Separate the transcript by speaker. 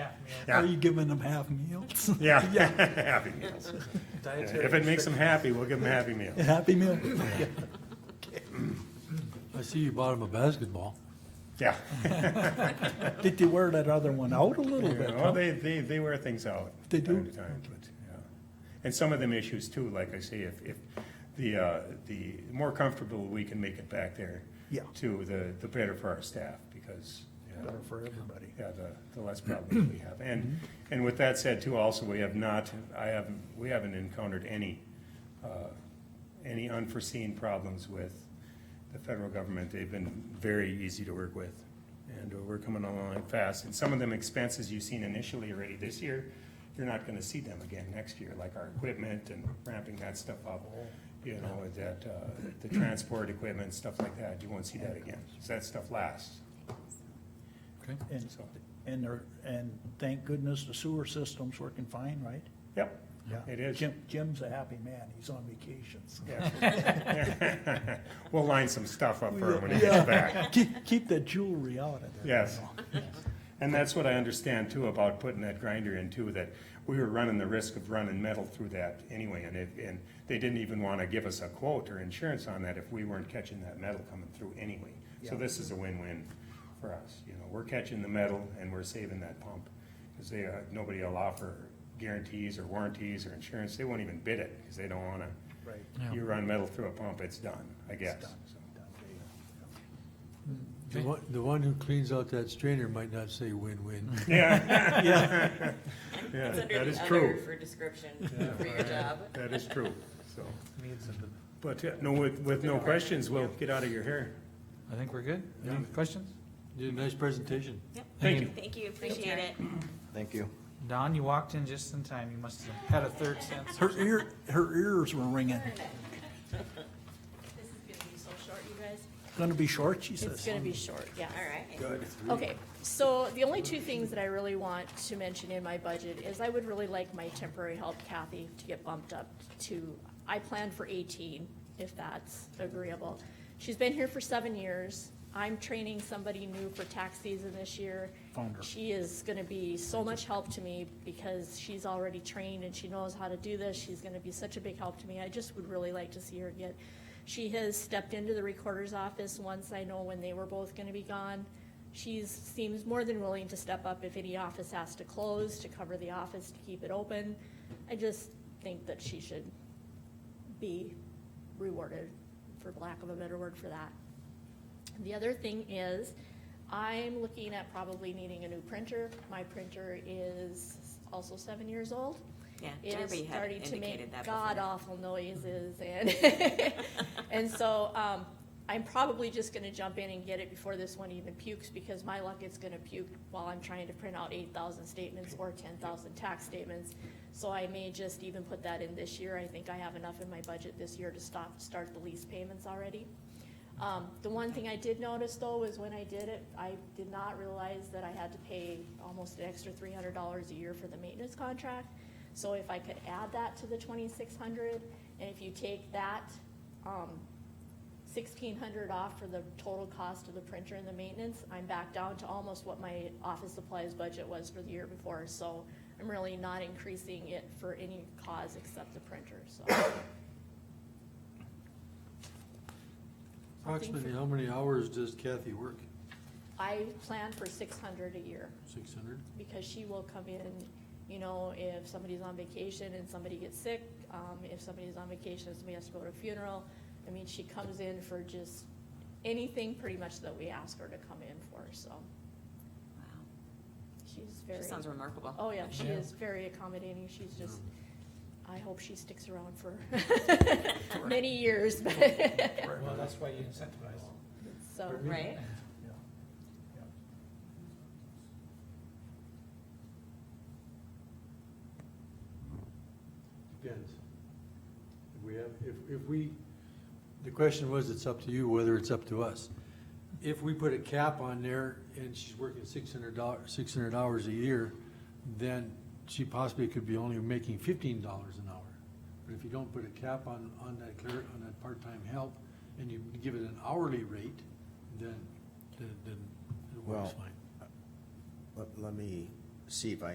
Speaker 1: Are
Speaker 2: Yeah.
Speaker 1: you giving them half meals?
Speaker 2: Yeah, happy meals.
Speaker 3: Dietary
Speaker 2: If it makes them happy, we'll give them happy meals.
Speaker 1: A happy meal?
Speaker 4: I see you bought him a basketball.
Speaker 2: Yeah.
Speaker 1: Did you wear that other one out a little bit?
Speaker 2: Oh, they, they, they wear things out.
Speaker 1: They do?
Speaker 2: from Time to time, but, yeah. And some of them issues too, like I say, if, if the, uh, the more comfortable we can make it back there.
Speaker 1: Yeah.
Speaker 2: To the, the better for our staff, because, you know,
Speaker 1: Better for everybody.
Speaker 2: yeah, the, the less problems we have. And, and with that said too, also, we have not, I haven't, we haven't encountered any, uh, any unforeseen problems with the federal government. They've been very easy to work with. And we're coming along fast. And some of them expenses you've seen initially already this year, you're not gonna see them again next year, like our equipment and ramping that stuff up. You know, that, uh, the transport equipment, stuff like that, you won't see that again. So that stuff lasts,
Speaker 4: Okay.
Speaker 1: And,
Speaker 2: so,
Speaker 1: and they're, and thank goodness the sewer system's working fine, right?
Speaker 2: yep. It is.
Speaker 1: Jim, Jim's a happy man. He's on vacation. so.
Speaker 2: Yeah. We'll line some stuff up for him when he gets back.
Speaker 1: Oh, Keep, keep the jewelry out of there.
Speaker 2: Yes. And that's what I understand too about putting that grinder in too, that we were running the risk of running metal through that anyway. And it, and they didn't even want to give us a quote or insurance on that if we weren't catching that metal coming through anyway. So
Speaker 1: Yeah.
Speaker 2: this is a win-win for us. You know, we're catching the metal and we're saving that pump. Because they, uh, nobody will offer guarantees or warranties or insurance. They won't even bid it because they don't want to.
Speaker 1: Right.
Speaker 2: You run metal through a pump, it's done, I guess.
Speaker 1: done.
Speaker 2: So,
Speaker 4: The one, the one who cleans out that strainer might not say win-win.
Speaker 2: Mm. Yeah,
Speaker 1: Yeah,
Speaker 2: yeah,
Speaker 5: It's under
Speaker 2: that is
Speaker 5: the other
Speaker 2: true.
Speaker 5: for description for your job.
Speaker 2: That is true, so.
Speaker 3: needs of the-
Speaker 2: But, yeah, no, with, with no questions, we'll get out of your hair.
Speaker 6: I think we're good. Any questions?
Speaker 4: Did a nice presentation.
Speaker 2: Thank you.
Speaker 5: Thank you, appreciate it.
Speaker 7: Thank you.
Speaker 6: Don, you walked in just in time. You must have had a third sense.
Speaker 1: her ear, her ears were ringing.
Speaker 8: This is gonna be so short, you guys.
Speaker 1: Gonna be short, she
Speaker 8: It's
Speaker 1: says.
Speaker 8: gonna be short, yeah.
Speaker 5: All right.
Speaker 8: Okay, so the only two things that I really want to mention in my budget is I would really like my temporary help Kathy to get bumped up to, I planned for eighteen, if that's agreeable. She's been here for seven years. I'm training somebody new for tax season this year.
Speaker 1: Found her.
Speaker 8: She is gonna be so much help to me because she's already trained and she knows how to do this. She's gonna be such a big help to me. I just would really like to see her get. She has stepped into the recorder's office once I know when they were both gonna be gone. She's, seems more than willing to step up if any office has to close, to cover the office, to keep it open. I just think that she should be rewarded, for lack of a better word for that. The other thing is, I'm looking at probably needing a new printer. My printer is also seven years old.
Speaker 5: Yeah,
Speaker 8: It is
Speaker 5: Darby had
Speaker 8: starting to make
Speaker 5: indicated that
Speaker 8: god
Speaker 5: before.
Speaker 8: awful noises and, and so, um, I'm probably just gonna jump in and get it before this one even pukes because my luck it's gonna puke while I'm trying to print out eight thousand statements or ten thousand tax statements. So I may just even put that in this year. I think I have enough in my budget this year to stop, start the lease payments already. Um, the one thing I did notice though was when I did it, I did not realize that I had to pay almost an extra three hundred dollars a year for the maintenance contract. So if I could add that to the twenty-six hundred, and if you take that, um, sixteen hundred off for the total cost of the printer and the maintenance, I'm back down to almost what my office supplies budget was for the year before, so I'm really not increasing it for any cause except the printer, so.
Speaker 4: Approximately how many hours does Kathy work?
Speaker 8: I plan for six hundred a year.
Speaker 4: Six hundred?
Speaker 8: because she will come in, you know, if somebody's on vacation and somebody gets sick, um, if somebody's on vacation and somebody has to go to a funeral. I mean, she comes in for just anything pretty much that we ask her to come in for, so
Speaker 5: Wow,
Speaker 8: she's very,
Speaker 5: She sounds remarkable.
Speaker 8: oh yeah, she is very accommodating, she's just, I hope she sticks around for many years, but,
Speaker 6: Well, that's why you incentivize.
Speaker 8: so.
Speaker 5: Right?
Speaker 4: Depends. If we have, if, if we, the question was, it's up to you whether it's up to us. If we put a cap on there and she's working six hundred dollars, six hundred hours a year, then she possibly could be only making fifteen dollars an hour. But if you don't put a cap on, on that clear, on that part-time help, and you give it an hourly rate, then, then, then it
Speaker 7: Well,
Speaker 4: works fine.
Speaker 7: Let, let me see if I